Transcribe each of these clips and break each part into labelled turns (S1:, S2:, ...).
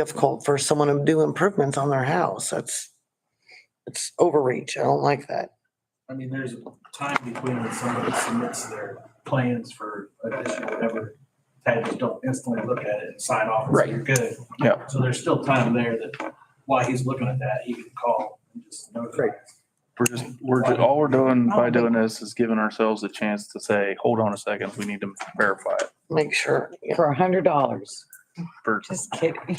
S1: difficult for someone to do improvements on their house. That's, it's overreach. I don't like that.
S2: I mean, there's time between when somebody submits their plans for additional whatever. They just don't instantly look at it and sign off and say,
S3: Right.
S2: you're good.
S3: Yeah.
S2: So there's still time there that while he's looking at that, he can call and just notify.
S1: Right.
S3: We're just, we're, ju- all we're doing by doing this is giving ourselves a chance to say, hold on a second, we need to verify it.
S1: Make sure, yeah,
S4: for a hundred dollars.
S3: For,
S4: Just kidding.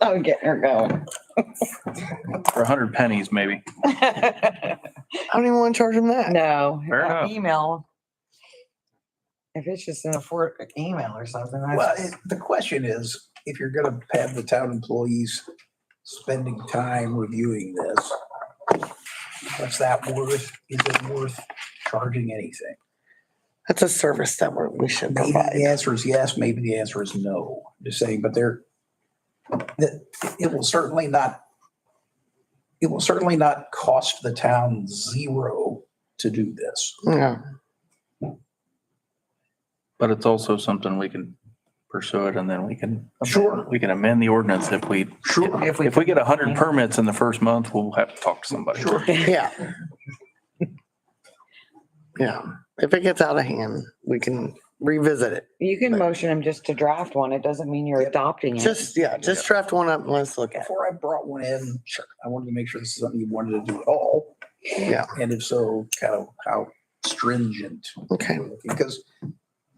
S4: I'm getting her going.
S3: for a hundred pennies maybe.
S1: I don't even want to charge them that.
S4: No,
S3: Fair
S4: uh,
S3: enough.
S4: email. If it's just in a for email or something,
S5: Well,
S4: that's,
S5: it- the question is, if you're gonna have the town employees spending time reviewing this, what's that worth? Is it worth charging anything?
S1: That's a service that we're, we should
S5: Maybe the
S1: provide.
S5: answer is yes, maybe the answer is no. Just saying, but there, that, it will certainly not, it will certainly not cost the town zero to do this.
S1: Yeah.
S3: But it's also something we can pursue it and then we can.
S5: Sure.
S3: We can amend the ordinance if we,
S5: Sure.
S4: if we,
S3: if we get a hundred permits in the first month, we'll have to talk to somebody.
S5: Sure.
S1: Yeah. Yeah, if it gets out of hand, we can revisit it.
S4: you can motion them just to draft one. It doesn't mean you're adopting it.
S1: Just, yeah, just draft one up and let's look at it.
S5: Before I brought one in, sure, I wanted to make sure this is something you wanted to do at all.
S1: Yeah,
S5: And if so, kind of how stringent,
S1: okay.
S5: we're looking, because,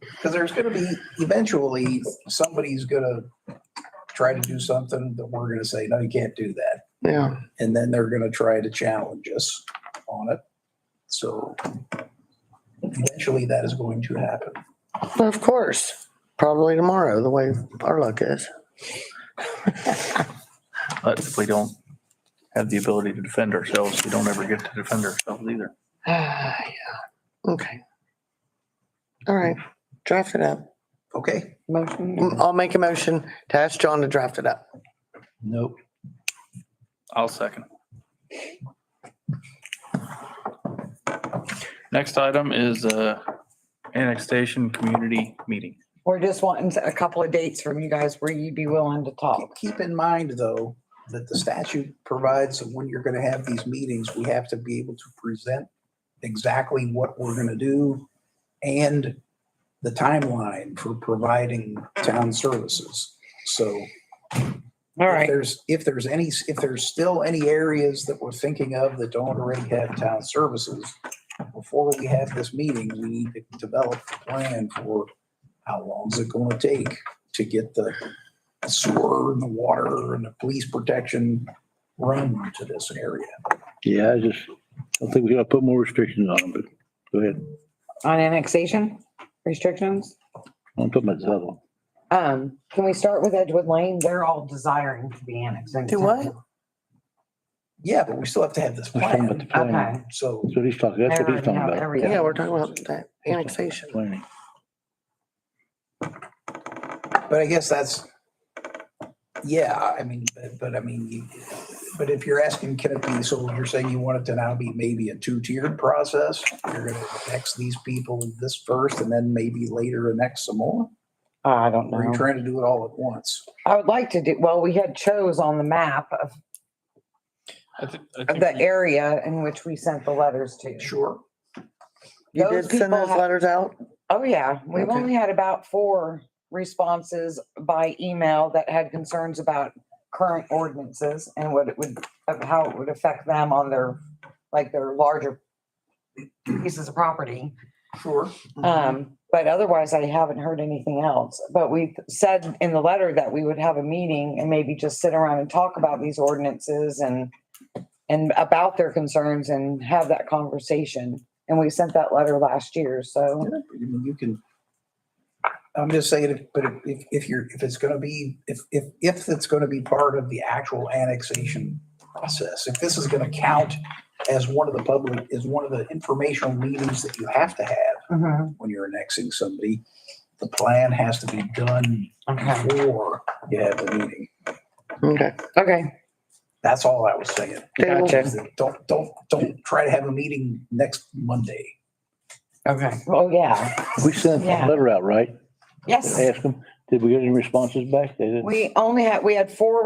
S5: because there's gonna be, eventually, somebody's gonna try to do something that we're gonna say, no, you can't do that.
S1: Yeah,
S5: And then they're gonna try to challenge us on it. So eventually that is going to happen.
S1: of course, probably tomorrow, the way our luck is.
S3: But if we don't have the ability to defend ourselves, we don't ever get to defend ourselves either.
S1: Yeah. Okay. All right, draft it up.
S5: Okay?
S4: Motion.
S1: Mm, I'll make a motion to ask John to draft it up.
S5: Nope.
S3: I'll second. Next item is uh annexation community meeting.
S4: We're just wanting a couple of dates from you guys where you'd be willing to talk.
S5: Keep in mind, though, that the statute provides that when you're gonna have these meetings, we have to be able to present exactly what we're gonna do and the timeline for providing town services. So
S4: All
S5: if
S4: right,
S5: there's, if there's any, if there's still any areas that we're thinking of that don't already have town services, before we have this meeting, we need to develop a plan for how long is it gonna take to get the sewer and the water and the police protection run to this area.
S6: Yeah, I just, I think we gotta put more restrictions on them, but go ahead.
S4: on annexation restrictions.
S6: I'm talking about the other one.
S4: Um, can we start with Edgewood Lane? They're all desiring to be annexed. into
S1: Do what?
S5: Yeah, but we still have to have this
S6: We're talking about
S5: plan,
S6: the
S4: town.
S6: planning.
S4: Okay.
S5: so.
S6: That's what he's talking, that's what he's talking about.
S4: There we
S1: Yeah,
S4: go.
S1: we're talking about that annexation.
S6: Planning.
S5: But I guess that's, yeah, I mean, but, but I mean, you- but if you're asking, can it be, so you're saying you want it to now be maybe a two-tiered process? You're gonna annex these people this first and then maybe later annex some more?
S4: I don't
S5: Or are you
S4: know.
S5: trying to do it all at once?
S4: I would like to do, well, we had chose on the map of
S3: I think,
S4: of the area in which we sent the letters to.
S5: Sure.
S1: You
S4: Those
S1: did send
S4: people
S1: those
S4: have-
S1: letters out?
S4: Oh, yeah. We've
S1: Okay.
S4: only had about four responses by email that had concerns about current ordinances and what it would, of how it would affect them on their, like their larger pieces of property.
S5: Sure.
S4: Um, but otherwise I haven't heard anything else. But we said in the letter that we would have a meeting and maybe just sit around and talk about these ordinances and and about their concerns and have that conversation. And we sent that letter last year, so
S5: I mean, you can, I'm just saying, if- but if- if, if you're, if it's gonna be, if, if, if it's gonna be part of the actual annexation process, if this is gonna count as one of the public, as one of the informational meetings that you have to have
S4: Mhm.
S5: when you're annexing somebody, the plan has to be done
S4: okay,
S5: before you have the meeting.
S1: Okay,
S4: okay,
S5: That's all I was saying.
S1: They will-
S4: gotcha.
S5: Don't, don't, don't try to have a meeting next Monday.
S4: Okay. Oh, yeah.
S6: We sent
S4: Yeah.
S6: a letter out, right?
S4: Yes,
S6: Ask them, Did we get any responses back? They didn't.
S4: We only had, we had four